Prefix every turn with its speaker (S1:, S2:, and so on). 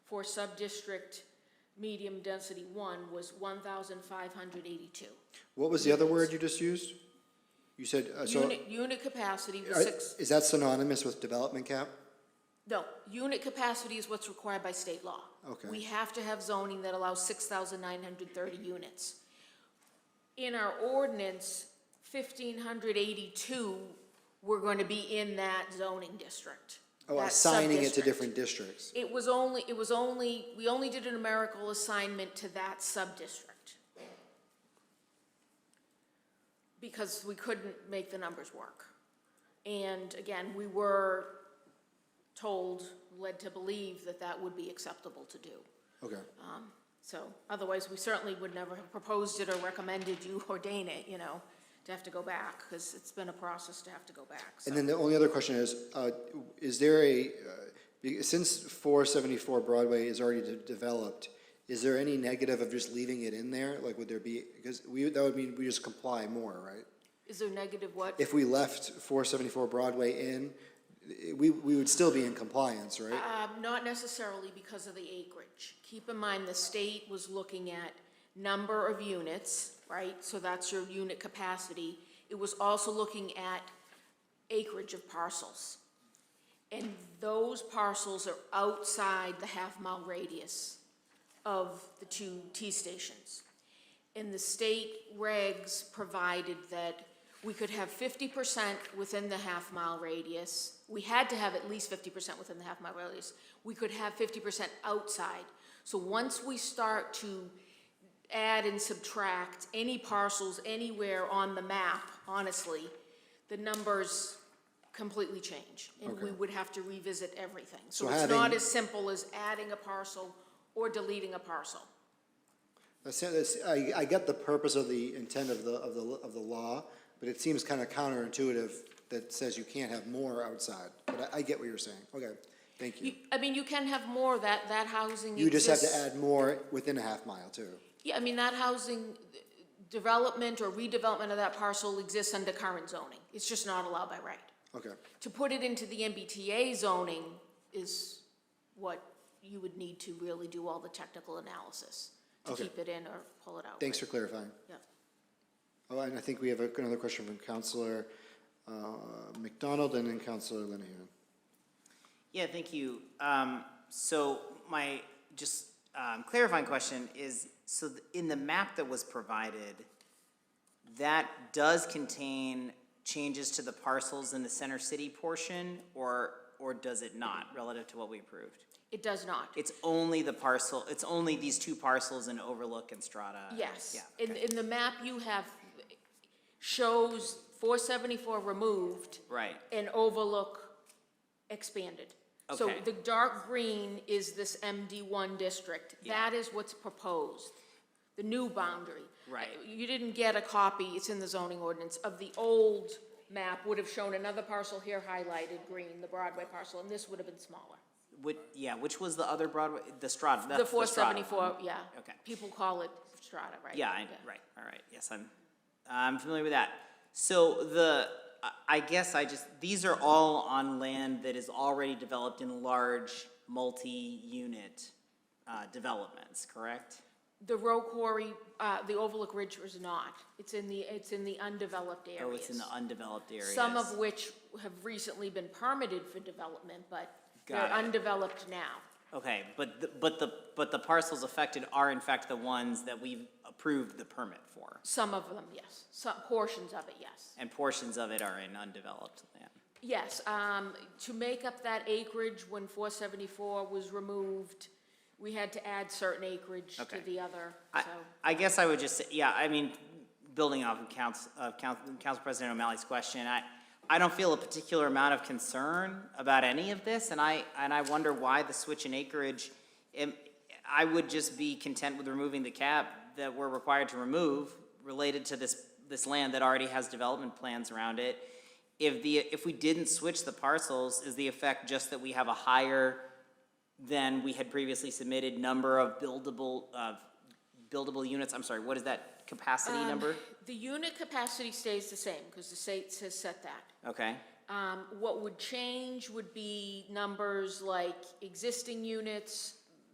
S1: for sub-district medium density one was one thousand five hundred eighty-two.
S2: What was the other word you just used? You said, uh, so,
S1: Unit, unit capacity was
S2: are-
S1: six,
S2: is that synonymous with development cap?
S1: no, unit capacity is what's required by state law.
S2: Okay.
S1: We have to have zoning that allows six thousand nine hundred thirty units. In our ordinance, fifteen hundred eighty-two, we're gonna be in that zoning district.
S2: Oh,
S1: that
S2: assigning it to
S1: sub-district.
S2: different districts.
S1: It was only, it was only, we only did a numerical assignment to that sub-district. Because we couldn't make the numbers work. And again, we were told, led to believe that that would be acceptable to do.
S2: Okay,
S1: So otherwise, we certainly would never have proposed it or recommended you ordain it, you know, to have to go back, because it's been a process to have to go back, so.
S2: and then the only other question is, uh, is there a, uh, be- since four seventy-four Broadway is already de- developed, is there any negative of just leaving it in there? Like, would there be, because we, that would mean we just comply more, right?
S1: Is there negative what?
S2: If we left four seventy-four Broadway in, i- we, we would still be in compliance, right?
S1: Um, not necessarily because of the acreage. Keep in mind, the state was looking at number of units, right? So that's your unit capacity. It was also looking at acreage of parcels. And those parcels are outside the half-mile radius of the two T stations. And the state regs provided that we could have fifty percent within the half-mile radius. We had to have at least fifty percent within the half-mile radius. We could have fifty percent outside. So once we start to add and subtract any parcels anywhere on the map, honestly, the numbers completely change. And we
S2: Okay.
S1: would have to revisit everything. So
S2: So
S1: it's not
S2: having-
S1: as simple as adding a parcel or deleting a parcel.
S2: That's, that's, I, I get the purpose of the intent of the, of the, of the law, but it seems kind of counterintuitive that says you can't have more outside, but I, I get what you're saying, okay, thank you.
S1: You- I mean, you can have more, that, that housing
S2: You just have to
S1: exists-
S2: add more within a half mile too.
S1: Yeah, I mean, that housing uh, development or redevelopment of that parcel exists under current zoning. It's just not allowed by right.
S2: Okay,
S1: To put it into the MBTA zoning is what you would need to really do all the technical analysis to
S2: Okay.
S1: keep it in or pull it out.
S2: thanks for clarifying.
S1: Yeah.
S2: Oh, and I think we have a- another question from Counselor, uh, McDonald and then Counselor Linehan.
S3: Yeah, thank you. Um, So my, just um, clarifying question is, so th- in the map that was provided, that does contain changes to the parcels in the center city portion, or, or does it not, relative to what we approved?
S1: It does not.
S3: It's only the parcel, it's only these two parcels in Overlook and Strata?
S1: Yes.
S3: Yeah,
S1: And,
S3: okay.
S1: and the map you have shows four seventy-four removed.
S3: Right,
S1: and overlook expanded. So
S3: Okay.
S1: the dark green is this MD1 district. That is what's proposed, the new boundary. Uh,
S3: Right.
S1: You didn't get a copy, it's in the zoning ordinance, of the old map would have shown another parcel here highlighted green, the Broadway parcel, and this would have been smaller.
S3: which, yeah, which was the other Broadway, the Strata, that's
S1: The
S3: Uh, the Strata one.
S1: 474, yeah.
S3: Okay.
S1: People call it strata, right?
S3: Yeah, I, right, all right, yes, I'm, I'm familiar with that. So the, I- I guess I just, these are all on land that is already developed in large, multi-unit uh, developments, correct?
S1: The Row Quarry, uh, the Overlook Ridge was not. It's in the, it's in the undeveloped areas.
S3: Oh, it's in the undeveloped areas.
S1: Some of which have recently been permitted for development, but they're
S3: Got it.
S1: undeveloped now.
S3: Okay, but, the- but the, but the parcels affected are in fact the ones that we've approved the permit for,
S1: Some of them, yes. Some portions of it, yes.
S3: and portions of it are in undeveloped land.
S1: Yes, um, to make up that acreage when four seventy-four was removed, we had to add certain acreage to
S3: Okay.
S1: the other,
S3: I-
S1: so.
S3: I guess I would just, say yeah, I mean, building off of Council, of Council, Council President O'Malley's question, I, I don't feel a particular amount of concern about any of this, and I, and I wonder why the switch in acreage. Am- I would just be content with removing the cap that we're required to remove related to this, this land that already has development plans around it. If the, if we didn't switch the parcels, is the effect just that we have a higher than we had previously submitted number of buildable, of buildable units, I'm sorry, what is that capacity number?
S1: The unit capacity stays the same, because the state has set that.
S3: Okay,
S1: Um, what would change would be numbers like existing units,